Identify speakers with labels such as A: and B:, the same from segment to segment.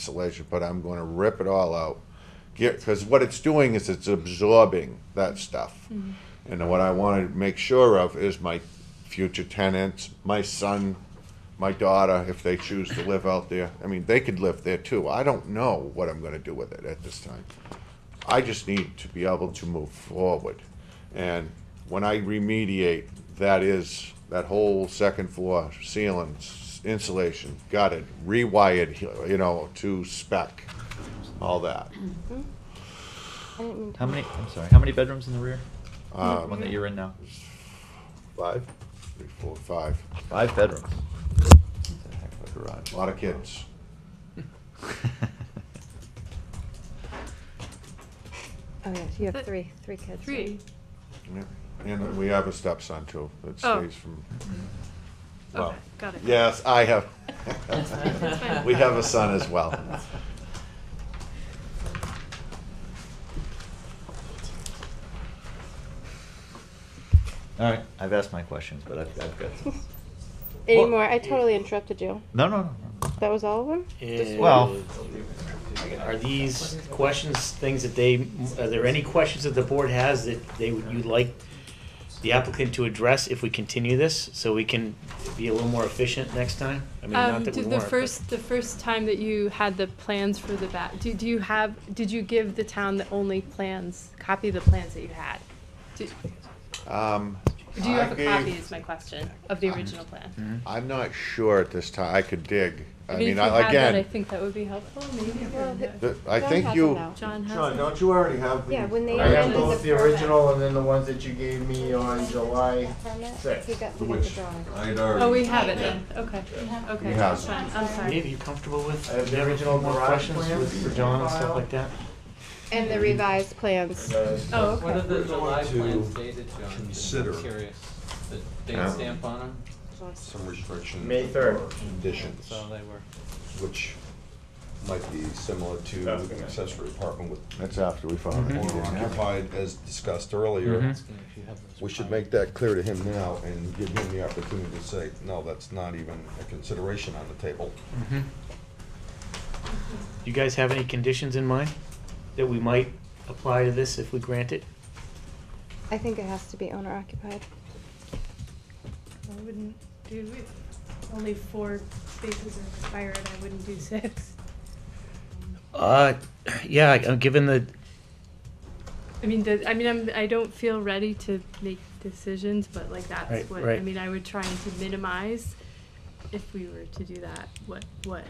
A: insulation, but I'm going to rip it all out. Because what it's doing is it's absorbing that stuff. And what I want to make sure of is my future tenants, my son, my daughter, if they choose to live out there. I mean, they could live there too. I don't know what I'm going to do with it at this time. I just need to be able to move forward. And when I remediate, that is, that whole second floor ceiling, s- insulation, gutted, rewired, you know, to spec, all that.
B: How many? I'm sorry. How many bedrooms in the rear? The
C: Uh,
B: one
A: Um,
B: that you're in now.
A: Five? Three, four, five.
B: Five bedrooms. That's a heck of a garage.
A: Lot of kids.
D: Oh, yes, you have
E: But-
D: three, three kids.
E: Three.
A: Yeah. And we have a stepson too, that
E: Oh.
A: stays from, well,
E: Okay, got it.
A: yes, I have.
E: fine.
A: We have a son as well.
B: All right. I've asked my questions, but I've, I've got some.
D: Any
B: Well-
D: more? I totally interrupted you.
B: No, no, no. no.
D: That was all of them?
F: And
B: Well-
F: are these questions things that they? Are there any questions that the board has that they would you like the applicant to address if we continue this, so we can be a little more efficient next time? I mean,
E: Um,
F: not that we
E: did the
F: weren't, but-
E: first, the first time that you had the plans for the back, did you have, did you give the town the only plans, copy of the plans that you had? Do
A: Um,
E: do you
A: I
E: have a copy
A: gave-
E: is my question, of the original plan?
A: I'm not sure at this time, I could dig. I
E: mean, if
A: mean,
E: you
A: I-
E: had that, I
A: again,
E: think that would be helpful, maybe.
D: Well, the-
E: uh,
A: the- I
D: John
A: think
D: has
A: you.
D: them now.
E: John has.
G: John,
E: it.
G: don't you already have the?
D: Yeah, when they
G: I have
D: amended
G: both
D: the
G: the
D: permit.
G: original and then the ones that you gave me on July
D: Permit? He
G: sixth.
D: got, we got the drawing.
A: I'd already.
E: Oh, we have it then, okay, okay,
A: We have
E: that's
A: it.
E: fine, I'm
F: Dave,
E: sorry.
F: you comfortable with?
G: I have the
F: do you
G: original
F: more
G: garage
F: questions
G: plan
F: with- for John and stuff
G: file.
F: like that.
D: And the revised plans.
G: Uh,
E: Oh,
C: What
E: okay,
C: are the July
H: to
C: plans dated, John? I'm
H: consider-
C: curious. The
A: Yeah.
C: date stamp on them?
G: uh,
H: some restrictions.
G: May third.
H: or Conditions,
C: So they were.
H: which might be similar Mm-hmm. to
G: Okay.
H: accessory apartment with
A: That's after we found it.
H: owner occupied, as discussed earlier.
F: Mhm.
C: If you have those
H: We should
C: files.
H: make that clear to him now and give him the opportunity to say, no, that's not even a consideration on the table.
F: You guys have any conditions in mind that we might apply to this if we grant it?
D: I think it has to be owner occupied.
I: I wouldn't do, it. only four spaces are expired, I wouldn't do six.
F: Uh, yeah, I'm given the
E: I mean, the, I mean, I'm, I don't feel ready to make decisions, but like that's
F: Right,
E: what, I
F: right.
E: mean, I would try and to minimize if we were to do that, what, what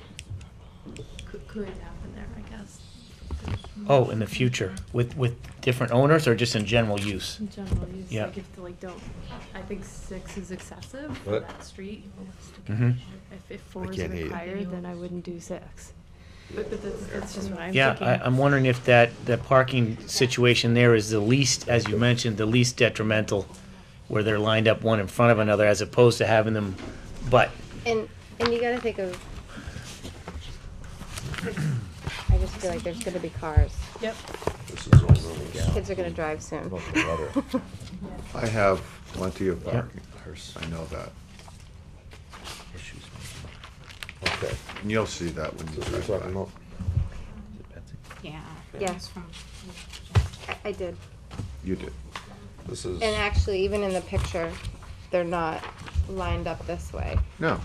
E: could, could happen there, I guess.
F: Oh, in the future, with, with different owners or just in general use?
E: In general, you just
F: Yeah.
E: like if the, like don't, I think six is excessive for
H: What?
E: that street.
F: Mhm.
E: If, if four is
H: can't hear you.
E: required, then I wouldn't do six. But, but that's, that's just what I'm thinking.
F: Yeah, I, I'm wondering if that, the parking situation there is the least, as you mentioned, the least detrimental, where they're lined up one in front of another, as opposed to having them butt.
D: And, and you gotta think of, I just feel like there's gonna be cars.
E: Yep,
H: This is all really
D: Kids are gonna drive soon.
H: about the weather.
A: I have plenty of
F: Yeah.
A: parking, I know that.
H: Okay,
A: And you'll see that when you
H: so we're
A: drive
H: talking
A: by.
H: about
I: Yeah.
D: Yeah. it's I, I did.
A: You did.
H: this is.
D: And actually, even in the picture, they're not lined up this way.
A: No,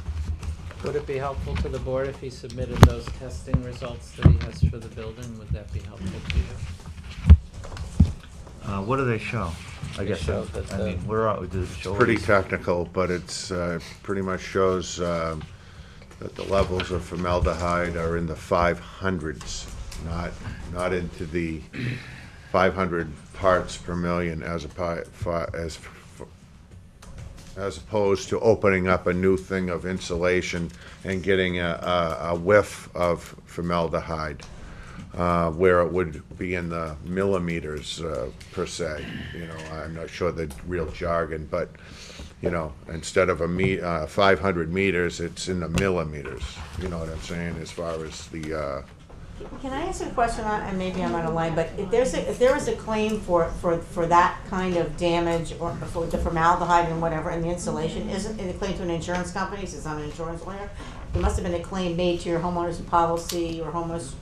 C: Would it be helpful to the board if he submitted those testing results that he has for the building? Would that be helpful to you?
B: Uh, what do they show? I
C: They
B: guess
C: show
B: that-
C: that
B: I
C: the-
B: mean, where are does it show? all
A: pretty
B: these-
A: technical, but it's, uh, pretty much shows, um, that the levels of formaldehyde are in the five hundreds, not, not into the five hundred parts per million as a pi, fi, as, f- as opposed to opening up a new thing of insulation and getting a, a, a whiff of formaldehyde, uh, where it would be in the millimeters, uh, per se. You know, I'm not sure the real jargon, but, you know, instead of a me, uh, five hundred meters, it's in the millimeters. You know what I'm saying, as far as the, uh,
J: Can I ask a question, I- and maybe I'm out of line, but if there's, a- if there is a claim for, for, for that kind of damage or for the formaldehyde and whatever in the insulation,
I: Mm-hmm.
J: isn't it a claim to an insurance company, since I'm an insurance lawyer? There must have been a claim made to your homeowner's policy or homeowner's